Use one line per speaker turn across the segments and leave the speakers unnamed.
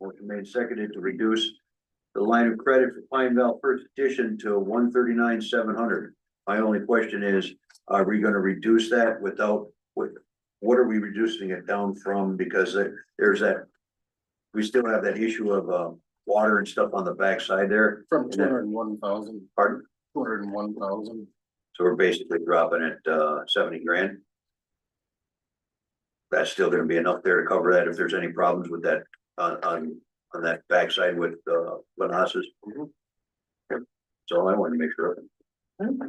Motion made seconded to reduce the line of credit for Pine Val First Edition to one thirty-nine, seven hundred. My only question is, are we gonna reduce that without, what, what are we reducing it down from? Because there- there's that, we still have that issue of, uh, water and stuff on the backside there,
From two hundred and one thousand,
pardon?
two hundred and one thousand,
So we're basically dropping it, uh, seventy grand. That's still gonna be enough there to cover that if there's any problems with that, on, on, on that backside with, uh, Manassas.
Mhm.
That's all I wanted to make sure of.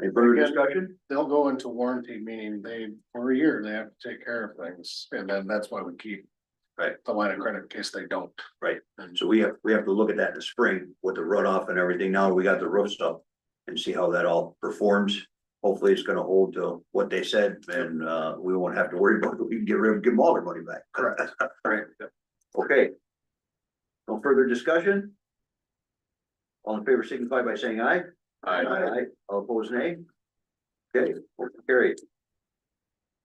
Any further
Again-
discussion?
they'll go into warranty, meaning they, for a year, they have to take care of things, and then that's why we keep.
Right.
The line of credit in case they don't.
Right.
And
So we have, we have to look at that in the spring with the runoff and everything. Now we got the roof stuff and see how that all performs. Hopefully it's gonna hold to what they said and, uh, we won't have to worry about it. We can get rid of, give them all their money back.
Correct. Right.
Okay. No further discussion? All in favor signify by saying aye. All opposed, nay? Okay, motion carried.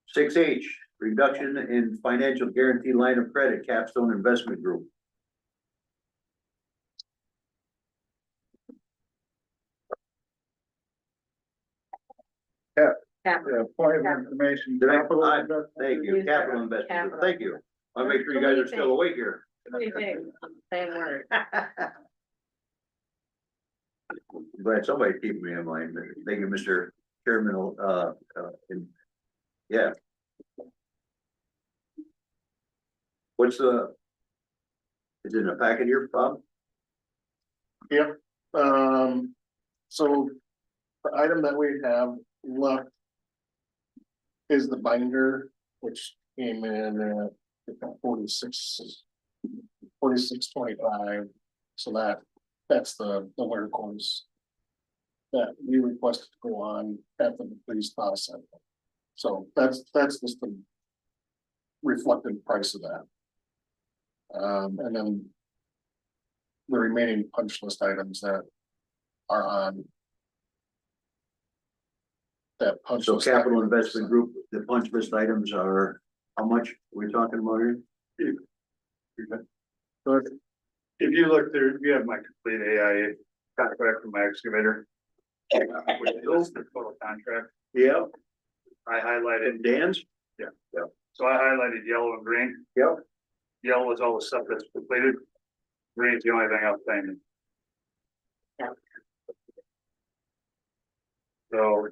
Six H, reduction in financial guarantee line of credit Capstone Investment Group.
Yeah, point of information.
Did I- capital I- Thank you, Capital Investment Group, thank you. I'll make sure you guys are still awake here.
Same word.
Glad somebody keeping me in mind. Thank you, Mr. Chairman, uh, uh, and, yeah. What's the? Is it in a packet here, Bob?
Um, so the item that we have left is the binder, which came in at forty-six, forty-six twenty-five. So that, that's the, the wear course that we requested to go on at the police process. So that's, that's just the reflected price of that. Um, and then the remaining punch list items that are on. That punch.
So
list
capital
item.
investment group, the punch list items are, how much we're talking about here?
But
If you look there, you have my complete AIA contract from my excavator. Which is the total contract.
Yeah,
I highlighted,
and Dan's?
so I highlighted yellow and green.
Yep.
Yellow is all the stuff that's completed. Green's the only thing outstanding.
Yep.
So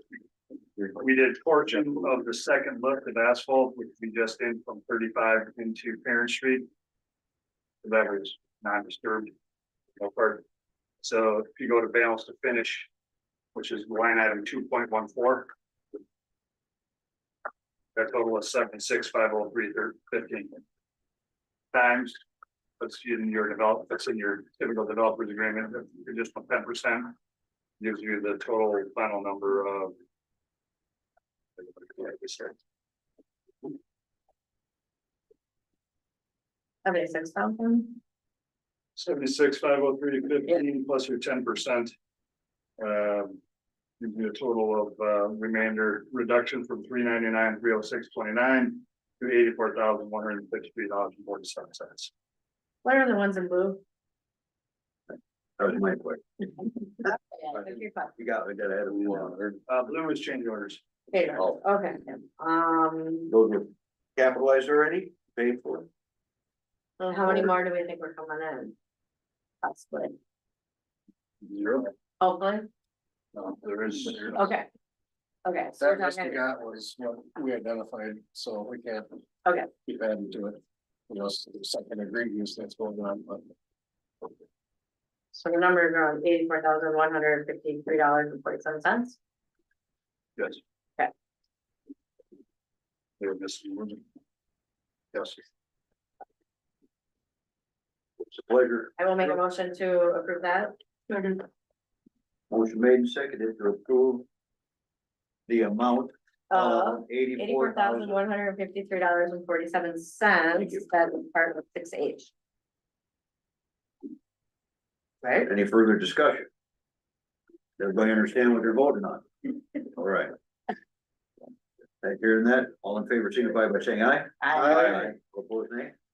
we did portion of the second lift of asphalt, which we just did from thirty-five into Parent Street. That was non-disturbed. No part. So if you go to balance to finish, which is line item two point one four. That total is seventy-six, five oh three, fifteen. Times, that's in your develop, that's in your typical developer's agreement, additional ten percent. Gives you the total final number of.
Seventy-six thousand?
Seventy-six, five oh three, fifteen, plus your ten percent. Um, gives you a total of, uh, remainder reduction from three ninety-nine, three oh six, twenty-nine. To eighty-four thousand, one hundred and fifty-three dollars and forty-seven cents.
What are the ones in blue?
That was my question.
Okay,
We got, we got ahead of one.
Uh, blue is change orders.
okay, um,
Those were capitalized already, paid for.
and how many more do we think we're coming in? Possibly,
Zero.
hopefully,
No, there is.
okay. Okay, so
That
we're
list we
talking,
got was what we identified, so we can't.
Okay.
Keep adding to it. You know, s- second degree use that's going on, but
so the number is around eighty-four thousand one hundred and fifty-three dollars and forty-seven cents.
Yes.
Okay.
They're missing. one. Yes.
It's a pleasure.
I will make a motion to approve that. Uh,
Motion made and seconded to approve the amount
Uh,
of eighty-four
eighty-four thousand
thousand.
one hundred and fifty-three dollars and forty-seven
Thank
cents,
you.
that's part of six H. Right?
Any further discussion? Everybody understand what they're voting on? All right. Thank you, hearing that, all in favor, signify by saying aye. Opposed, nay?